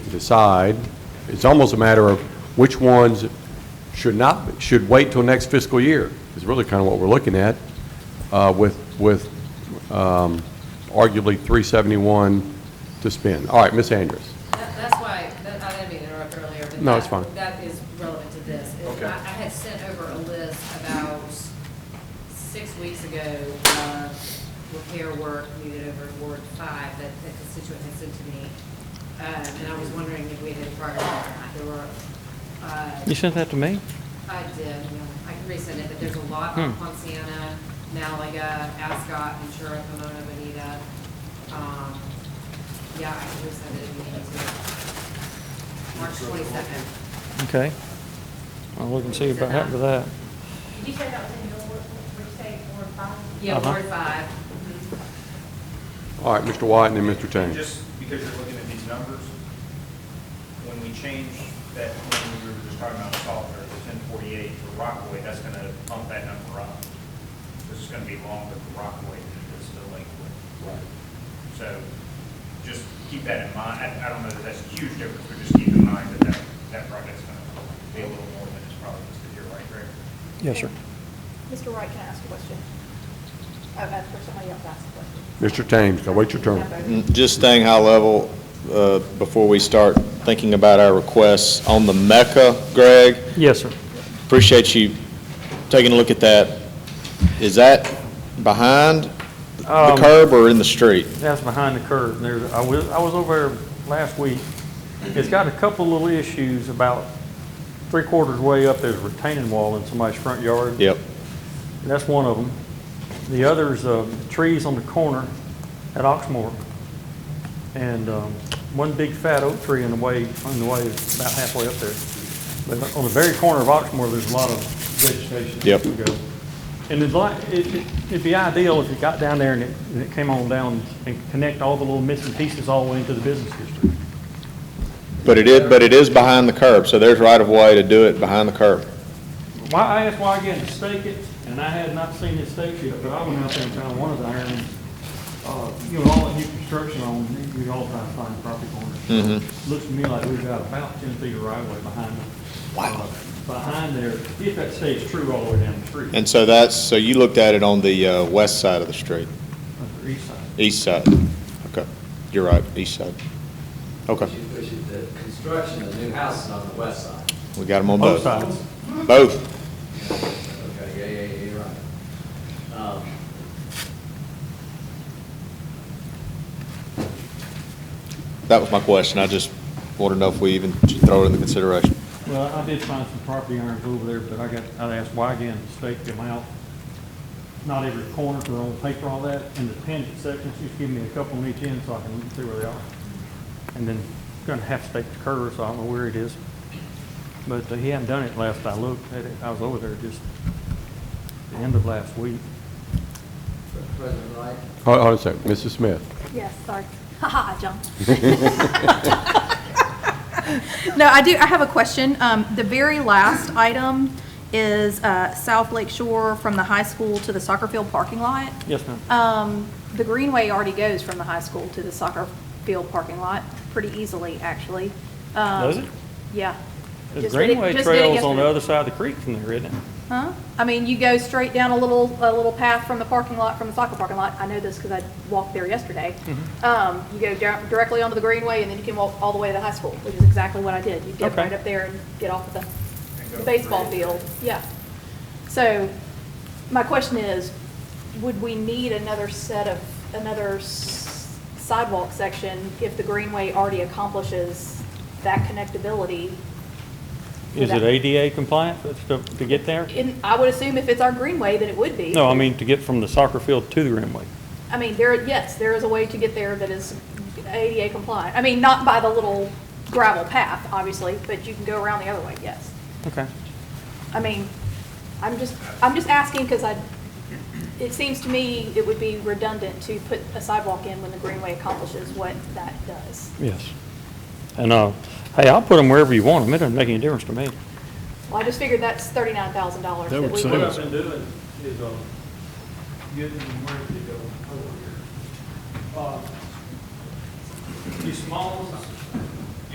decide. It's almost a matter of which ones should not, should wait till next fiscal year, is really kind of what we're looking at, uh, with, with um, arguably 371 to spend. All right, Ms. Andrews. That- That's why, that- I didn't mean to interrupt earlier, but. No, it's that- fine. That is relevant to this. Is Okay. I I had sent over a list about six weeks ago of repair work needed over in Ward Five that the constituent had sent to me. Um, And I was wondering if we had a priority or not. There were, uh, You sent that to me? I did, yeah. I can resend it, but there's a lot on Hmm. Ponciana, Malaga, Ascot, Ventura, Pomona, Bonita. Um, Yeah, I can resend it if you need to. March twenty-second. Okay. I'll look and see about that with that. Did you say that was in your, ward- would you say Ward five? Yeah, Uh-huh. Ward five. All right, Mr. White and then Mr. Chang. Just because you're looking at these numbers, when we change that, when we were just talking about salt or the ten forty-eight for Rockaway, that's gonna pump that number up. This is gonna be longer for Rockaway than it is to Lakewood. So just keep that in mind. I, I don't know that that's a huge difference, but just keep in mind that that, that project's gonna be a little more than it's probably listed here, right, Greg? Yes, sir. Mr. Wright, can I ask a question? Oh, that's for somebody else to ask a question. Mr. Thames, now wait your turn. Just staying high level, uh, before we start thinking about our requests, on the Mecca, Greg, Yes, sir. appreciate you taking a look at that. Is that behind the Um, curb or in the street? That's behind the curve. There's, I was, I was over there last week. It's got a couple little issues about three quarters way up, there's a retaining wall in somebody's front yard. Yep. That's one of them. The other's uh, trees on the corner at Oxmoor. And um, one big fat oak tree in the way, on the way, is about halfway up there. But on the very corner of Oxmoor, there's a lot of vegetation. that Yep. can go. And it'd like, it- it- it'd be ideal if you got down there and it, and it came on down and connect all the little missing pieces all the way into the business district. But it is, but it is behind the curb, so there's right of way to do it behind the curb. Why, I asked why I get to stake it, and I had not seen it staked yet, but I went out there and found one of the iron, uh, you know, all the new construction on, you all try to find property corners. Looks to me like we've got about ten feet of right of way behind the, uh, behind there, if that stays true all the way down the street, And so that's, so you looked at it on the uh, west side of the street, on the east side. east side. Okay, you're right, east side. Okay, Which is the construction of new houses on the west side. we got them on Both both. sides. Both. Okay, yeah, yeah, yeah, you're right. Um, That was my question. I just want to know if we even should throw it into consideration. Well, I did find some property irons over there, but I got, I asked why again, stake them out. Not every corner, they're on paper, all that, and the tangent sections, just give me a couple on each end so I can see where they are. And then gonna have to stake the curve, so I don't know where it is. But uh, he hadn't done it last I looked at it. I was over there just the end of last week. President Wright, Hold hold on a second, Mrs. Smith. Yes, sorry. Ha ha, John. No, I do, I have a question. Um, The very last item is uh, South Lake Shore from the high school to the soccer field parking lot. Yes, ma'am. Um, The greenway already goes from the high school to the soccer field parking lot pretty easily, actually. Um, Does it? Yeah. The Just did it- Greenway just did it Trail's on the yesterday. other side of the creek from there, isn't it? Huh? I mean, you go straight down a little, a little path from the parking lot, from the soccer parking lot. I know this because I walked there yesterday. Mm-hmm. Um, you go down, directly onto the greenway and then you can walk all the way to the high school, which is exactly what I did. You get Okay. right up there and get off at the- go the baseball through. field, yeah. So my question is, would we need another set of, another s- sidewalk section if the greenway already accomplishes that connectability? Is it That- ADA compliant that's to, to get there? And I would assume if it's our greenway, then it would be. No, I mean, to get from the soccer field to the Greenway. I mean, there, yes, there is a way to get there that is ADA compliant. I mean, not by the little gravel path, obviously, but you can go around the other way, yes. Okay. I mean, I'm just, I'm just asking because I, it seems to me it would be redundant to put a sidewalk in when the greenway accomplishes what that does. Yes. And, uh, hey, I'll put them wherever you want them. It doesn't make any difference to me. Well, I just figured that's thirty-nine thousand dollars that we would. What I've been doing is, um, getting them ready to go over here. Uh, These small ones,